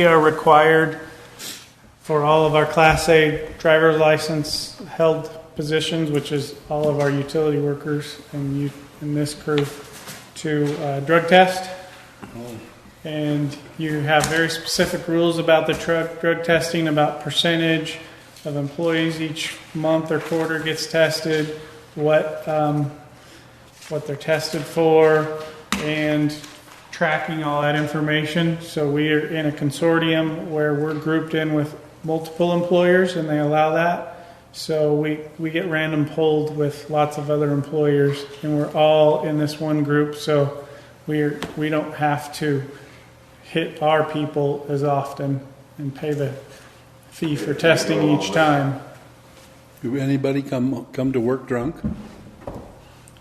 We are required for all of our Class A driver's license held positions, which is all of our utility workers and you, and this crew, to uh, drug test. And you have very specific rules about the drug, drug testing, about percentage of employees each month or quarter gets tested, what, um, what they're tested for, and tracking all that information. So we are in a consortium where we're grouped in with multiple employers and they allow that. So we, we get random pulled with lots of other employers and we're all in this one group. So we're, we don't have to hit our people as often and pay the fee for testing each time. Do anybody come, come to work drunk?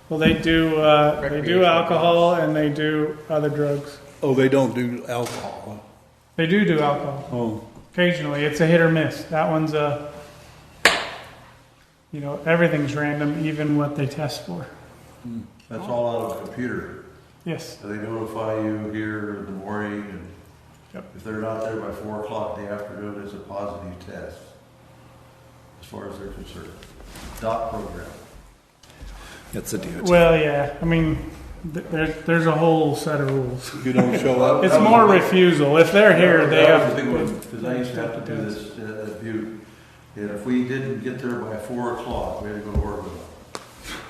Well, they do, uh, they do alcohol and they do other drugs. Oh, they don't do alcohol. They do do alcohol. Oh, Occasionally, it's a hit or miss. That one's a, you know, everything's random, even what they test for. That's all out of the computer. Yes, So They notify you here in the morning, and Yep. if they're not there by four o'clock in the afternoon, it's a positive test, as far as they're concerned. Dot program. that's a DOT. well, yeah, I mean, th- there's, there's a whole set of rules. You don't show up? It's more refusal. If they're here, they That have. was a big one, because I used to have to do this uh, at Butte, and if we didn't get there by four o'clock, we had to go to work with them.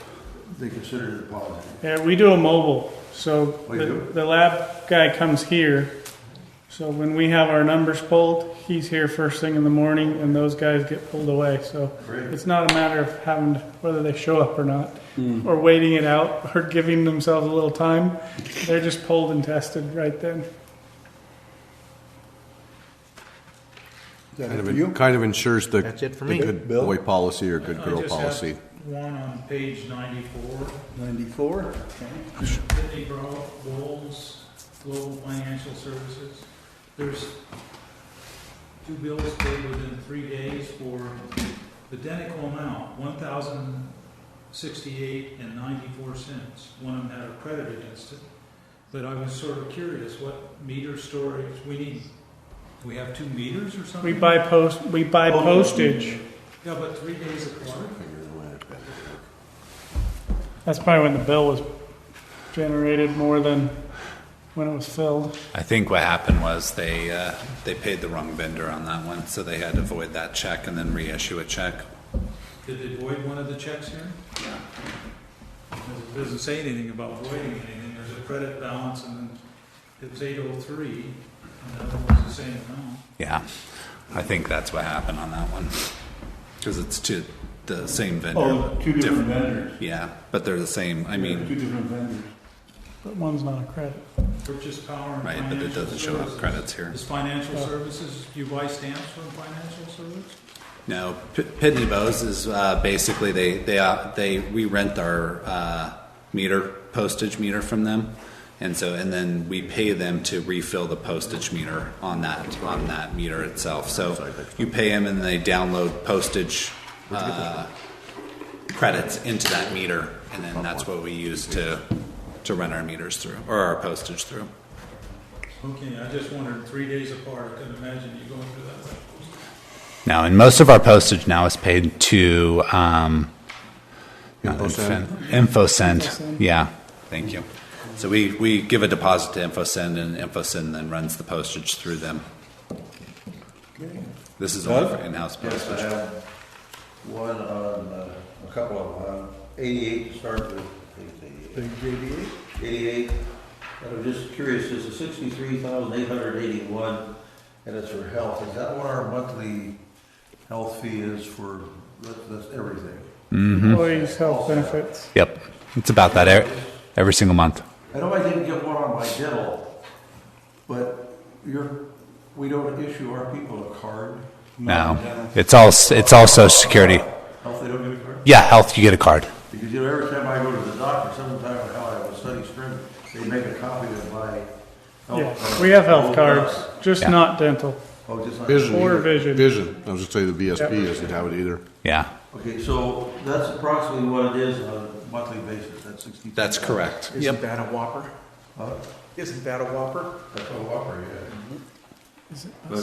They considered it positive. Yeah, we do a mobile, so We the, Oh, do? the lab guy comes here. So when we have our numbers pulled, he's here first thing in the morning and those guys get pulled away, so. Great. It's not a matter of having, to- whether they show up or not, or waiting it out, or giving themselves a little time. They're just pulled and tested right then. Kind of, en- kind of ensures the. That's it for me. good Bill? boy policy or good girl just have- policy. One on page ninety-four, 94? Pitney Bro- Bowles, Global Financial Services. There's two bills paid within three days for the identical amount, one thousand sixty-eight and ninety-four cents. One of them had a credit against it, but I was sort of curious what meter storage we need. We have two meters or We something? buy post, we buy Oh. postage. Yeah, but three days apart? That's probably when the bill was generated more than when it was filled. I think what happened was they, uh, they paid the wrong vendor on that one, so they had to void that check and then reissue a check. Did they void one of the checks here? Yeah. It doesn't say anything about voiding anything, there's a credit balance and then it was eight oh three, and that one was the same amount. Yeah, I think that's what happened on that one. Because it's two, the same vendor. Oh. vendors. Yeah, but they're the same, Oh, I mean, different vendors. But one's not a credit. Purchase power and right, but it financial doesn't show up services. credits here. Is financial services, you buy stamps from financial service? No, P- Pitney Bowes is uh, basically they they uh, they we rent our uh, meter postage meter from them, and so and then we pay them to refill the postage meter on that on that meter itself. So you pay them and they download postage uh, credits into that meter, and then that's what we use to to run our meters through or our postage through. Okay, I just wondered, three days apart, I couldn't imagine you going through that. Now, and most of our postage now is paid to um, not InfoSend? Infin- InfoSend. Yeah, thank you. So we, we give a deposit to InfoSend, and InfoSend then runs the postage through them. This is all for in-house Yes, I postage. have one on, uh, a couple of them, on eighty-eight to start with. Page eighty-eight? Eighty-eight, and I'm just curious, this is sixty-three thousand eight hundred eighty-one, and it's for health, is that what our monthly health fee is for, that- that's everything? Employees' Oh, health benefits. Yep, it's about that every, every single month. I know I didn't get one on my dental, but you're, we don't issue our people a card, No, it's all s- it's all Social Security. health, they don't give a card? Yeah, health, you get a card. Because, you know, every time I go to the doctor, sometime in hell, I have a study string, they make a copy of my health Yeah, card. we have health Oh, cards, just Yeah. not dental. Oh, just like, Vision. Or either. vision. Vision. I was just saying the Yep. VSP doesn't have it either. Yeah, okay, so that's approximately what it is on a monthly basis, that's sixty. that's correct. Isn't that a whopper? Huh? Isn't that a whopper? That's a whopper, yeah. Is it-